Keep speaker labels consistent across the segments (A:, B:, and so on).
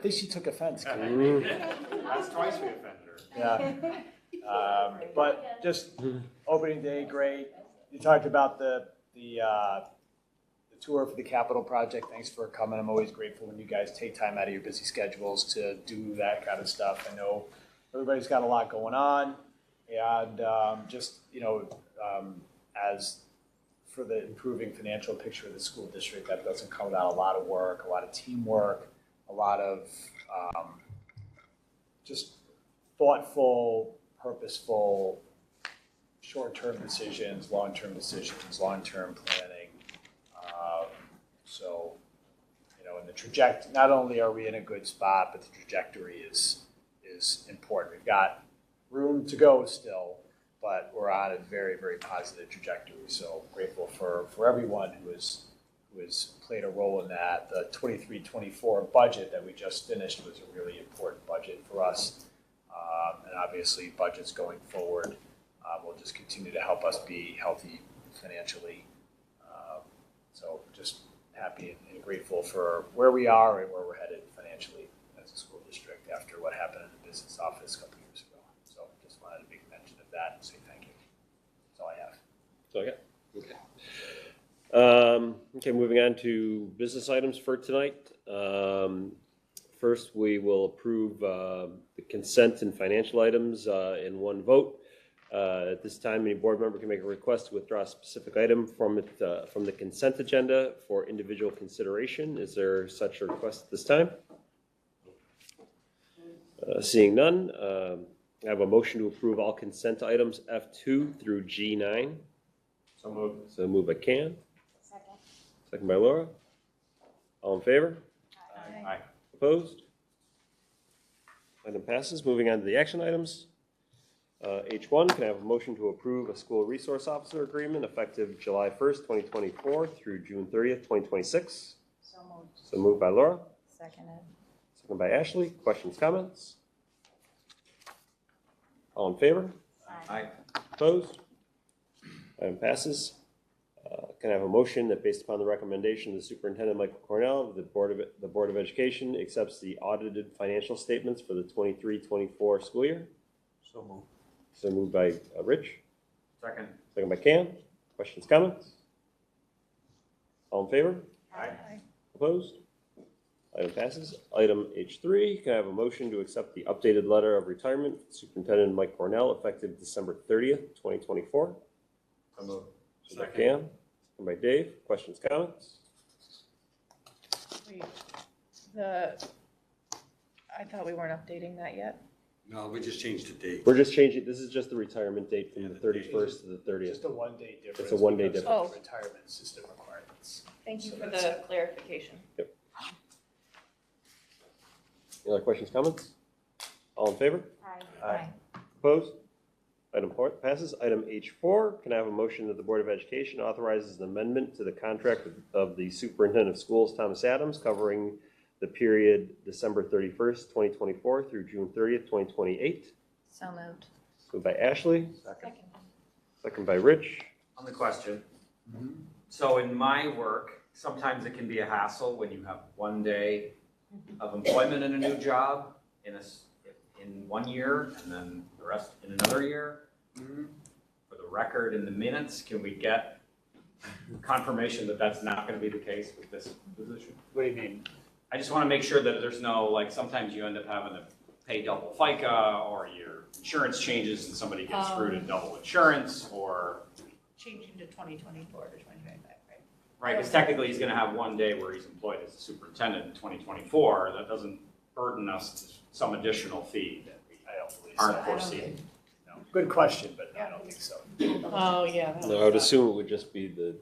A: think she took offense. Kate.
B: That's twice we offended her.
A: Yeah. Um, But just opening day, great. You talked about the, the, uh, the tour for the Capitol project. Thanks for coming. I'm always grateful when you guys take time out of your busy schedules to do that kind of stuff. I know everybody's got a lot going on. And um, just, you know, um, as for the improving financial picture of the school district, that doesn't come without a lot of work, a lot of teamwork, a lot of um, just thoughtful, purposeful, short-term decisions, long-term decisions, long-term planning. Um, So, you know, in the traject, not only are we in a good spot, but the trajectory is, is important. We've got room to go still, but we're on a very, very positive trajectory. So grateful for, for everyone who has, who has played a role in that. The 23-24 budget that we just finished was a really important budget for us. Um, And obviously, budgets going forward uh, will just continue to help us be healthy financially. Um, So just happy and grateful for where we are and where we're headed financially as a school district after what happened in the business office a couple years ago. So just wanted to make mention of that and say thank you. That's all I have.
C: So I got, okay. Um, okay, moving on to business items for tonight. Um, first, we will approve, uh, the consent and financial items, uh, in one vote. Uh, at this time, any board member can make a request to withdraw a specific item from it, uh, from the consent agenda for individual consideration. Is there such a request at this time? Uh, seeing none, um I have a motion to approve all consent items F two through G nine.
B: So moved.
C: So move by Can,
D: Second.
C: second by Laura. All in favor?
B: Aye.
C: Opposed? Item passes. Moving on to the action items. Uh, H1, can I have a motion to approve a school resource officer agreement effective July 1st, 2024 through June 30th, 2026?
D: So moved.
C: So moved by Laura,
D: Seconded.
C: second by Ashley. Questions, comments? All in favor?
B: Aye.
C: Opposed? Item passes. Uh, Can I have a motion that based upon the recommendation of the superintendent, Michael Cornell, the Board of, the Board of Education accepts the audited financial statements for the 23-24 school year?
B: So moved.
C: So moved by uh, Rich,
B: Second.
C: second by Cam. Questions, comments? All in favor?
B: Aye.
C: Opposed? Item passes. Item H3, can I have a motion to accept the updated letter of retirement Superintendent Mike Cornell effective December 30th, 2024?
B: So moved.
C: Second by Cam, second by Dave. Questions, comments?
E: Wait, The, I thought we weren't updating that yet.
F: No, we just changed the date.
C: We're just changing, this is just the retirement date from the
F: Yeah, the date.
C: thirty-first to the
A: Just
C: thirtieth.
A: a one-day difference.
C: one-day
A: because of Retirement system requirements.
E: Thank you
A: So
E: for
A: that's
E: the clarification.
C: Any other questions, comments? All in favor?
D: Aye.
A: Aye.
C: Opposed? Item four passes. Item H four, can I have a motion that the Board of Education authorizes an amendment to the contract of- of the Superintendent of Schools, Thomas Adams, covering the period December thirty-first, twenty twenty-four through June thirtieth, twenty twenty-eight?
D: So moved.
C: Moved by Ashley,
B: Second.
D: Second.
C: second by Rich.
G: On the question. So in my work, sometimes it can be a hassle when you have one day of employment in a new job in a, s- in one year and then the rest in another year. For the record, in the minutes, can we get confirmation that that's not gonna be the case with this position?
A: What do you mean?
G: I just wanna make sure that there's no, like, sometimes you end up having to pay double FICA or your insurance changes and somebody gets screwed in double insurance or
E: Changing to twenty twenty-four to twenty twenty-five, right?
G: Right, because technically he's gonna have one day where he's employed as a superintendent in twenty twenty-four, that doesn't burden us to some additional fee that we
A: I don't believe so.
G: aren't foreseeing.
A: No. Good question, but I don't think so.
E: Oh, yeah. that
C: No, I
E: was
C: would
E: that.
C: assume it would just be the.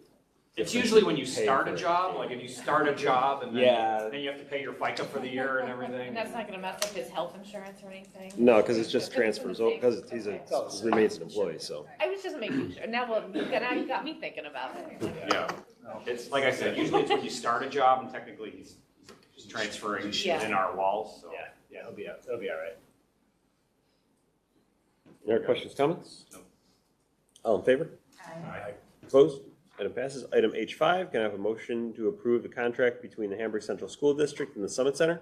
G: It's usually when you start a job, like if you start a job and
C: Yeah.
G: then, then you have to pay your FICA for the year and everything.
E: And that's not gonna mess up his health insurance or anything?
C: No, because it's just
E: If it's
C: transfers,
E: in the
C: because
E: same-
C: he's a,
E: okay.
A: Oh.
C: remains an employee, so.
E: I was just making sure, now, well, now you got me thinking about it.
G: Yeah,
A: No.
G: it's, like I said, usually it's when you start a job and technically he's just transferring
E: Yeah.
G: within our walls, so.
A: Yeah, yeah, it'll be, it'll be all right.
C: Any other questions, comments?
G: No.
C: All in favor?
D: Aye.
C: Opposed? Item passes. Item H5, can I have a motion to approve the contract between the Hamburg Central School District and the Summit Center?